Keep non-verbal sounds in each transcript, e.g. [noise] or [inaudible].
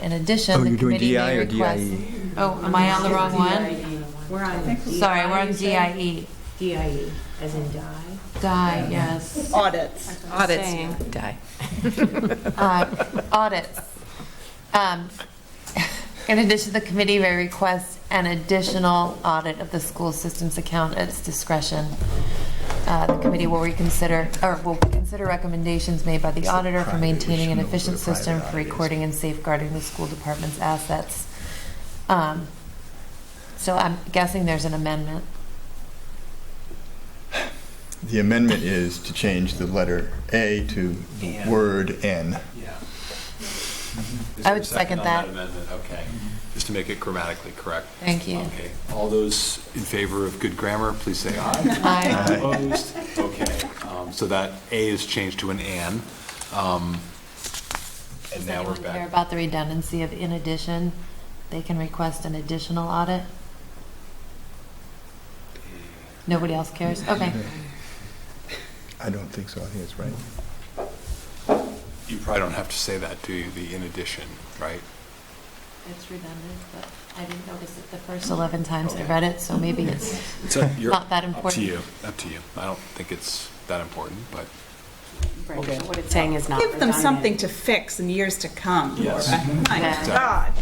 in addition, Oh, the you're doing committee DI may or E? request. DIE? Oh, am I E. on the wrong one? E. We're I on. E. think so. Sorry, we're on you said? DIE. DIE, as in die. Die, yes. Audits. Saying. Die. Uh, Audits. Um, [laughs] In addition, the committee may request an additional audit of the school system's account at its discretion. Uh, The committee will reconsider, or will consider recommendations made by the auditor for maintaining an efficient system for recording and safeguarding the school department's assets. Um, So I'm guessing there's an amendment. The amendment is to change the letter A to the And. word N. Yeah. I would second that. on amendment? Okay, just to make it grammatically correct. Thank you. Okay, all those in favor of good grammar, please say aye. Aye. Opposed? Okay, um, so that A is changed to an "an." um, And Does now we're anyone care back. about the redundancy of in addition? They can request an additional audit? Nobody else cares? [laughs] Okay. I don't think so, I think it's right. You probably don't have to say that, do you, the in addition, right? It's redundant, but I didn't notice it the first 11 times I read it, so [laughs] maybe it's It's up- you're- not that Up to important. you, up to you. I don't think it's that important, but. Right, but what it's saying is not Give them redundant. [laughs] something to fix in years to come. Yes. Laura. My Yeah. God.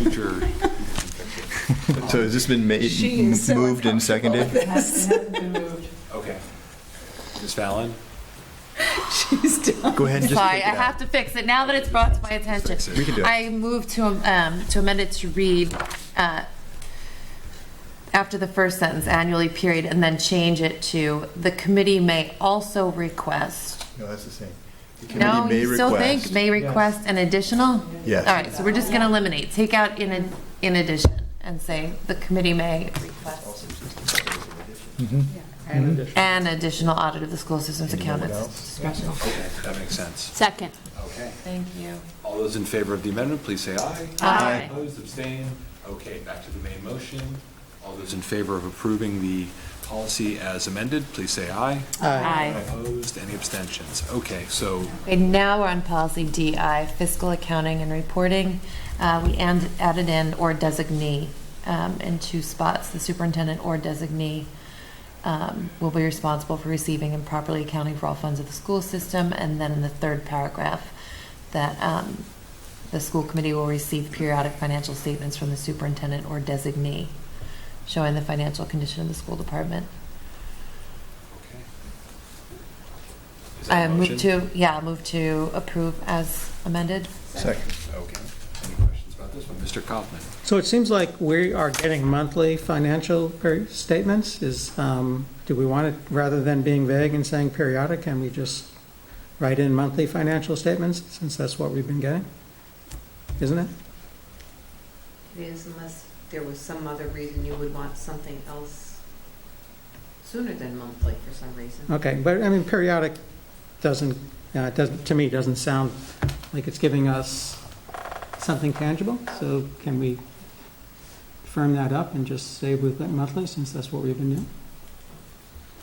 Future. So has this been made, She is so moved and uncomfortable seconded? with this. Okay. Ms. Fallon? She's done. Go ahead and just Sorry, take I it out. have to fix it now that it's brought to my attention. Fix it. We can do it. I move to, um, to amend it to read, uh, after the first sentence, annually period, and then change it to, the committee may also request. No, that's the same. The No, committee you may still request- think may request an additional? Yes. All right, so we're just going to eliminate, take out in, ad- in addition and say the committee may request an additional audit of the school system's account at its discretion. Okay, that makes sense. Second. Okay. Thank you. All those in favor of the amendment, please say aye. Aye. Opposed, abstain. Okay, back to the main motion. All those in favor of approving the policy as amended, please say aye. Aye. Opposed, any abstentions? Okay, so Okay, now we're on policy DI, fiscal accounting and reporting. Uh, We and- added in or designee um, in two spots. The superintendent or designee um, will be responsible for receiving and properly accounting for all funds of the school system. And then in the third paragraph, that um, the school committee will receive periodic financial statements from the superintendent or designee, showing the financial condition of the school department. okay. Is that I a move motion? to, yeah, move to approve as amended. Second. Okay. Any questions about this one? Mr. Kaufman? So it seems like we are getting monthly financial per- statements. Is, um, do we want it, rather than being vague and saying periodic, can we just write in monthly financial statements, since that's what we've been getting? Isn't it? It is unless there was some other reason you would want something else sooner than monthly for some reason. Okay, but I mean, periodic doesn't, uh, it doesn't, to me, doesn't sound like it's giving us something tangible. So can we firm that up and just say with monthly, since that's what we've been doing?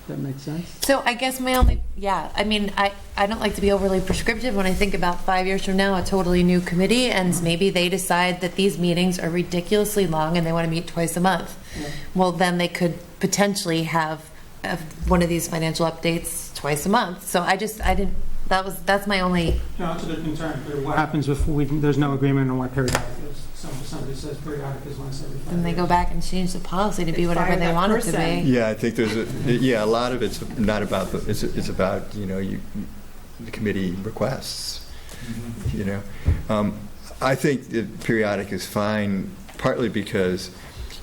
That makes sense? So I guess my only, yeah, I mean, I, I don't like to be overly prescriptive when I think about five years from now, a totally new committee, and maybe they decide that these meetings are ridiculously long and they want to meet twice a month. Well, then they could potentially have, have one of these financial updates twice a month. So I just, I didn't, that was, that's my only, No, it's a good concern, but what happens if we, there's no agreement on what periodic is? Some- Somebody says periodic is once every five then they go years. back and change the policy to be whatever Fire they that want it to person. be. Yeah, I think there's, a yeah, a lot of it's not about, the it's, it's about, you know, you, the committee requests, you know. Um, I think the periodic is fine, partly because,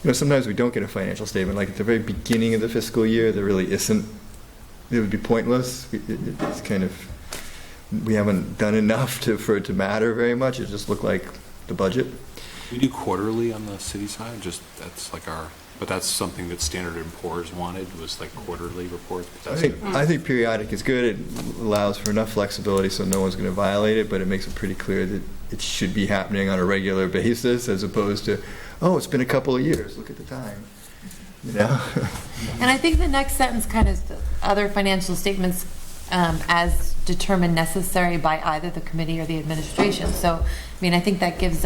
you know, sometimes we don't get a financial statement, like at the very beginning of the fiscal year, there really isn't, it would be pointless. It- it- It's kind of, we haven't done enough to, for it to matter very much, it just looked like the budget. We do quarterly on the city side, just, that's like our, but that's something that Standard and Poor's wanted, was like quarterly reports. but I that's- think, I think periodic is good. It allows for enough flexibility so no one's going to violate it, but it makes it pretty clear that it should be happening on a regular basis as opposed to, oh, it's been a couple of years, look at the time. You know? [laughs] And I think the next sentence kind of, other financial statements um, as determined necessary by either the committee or the administration. So, I mean, I think that gives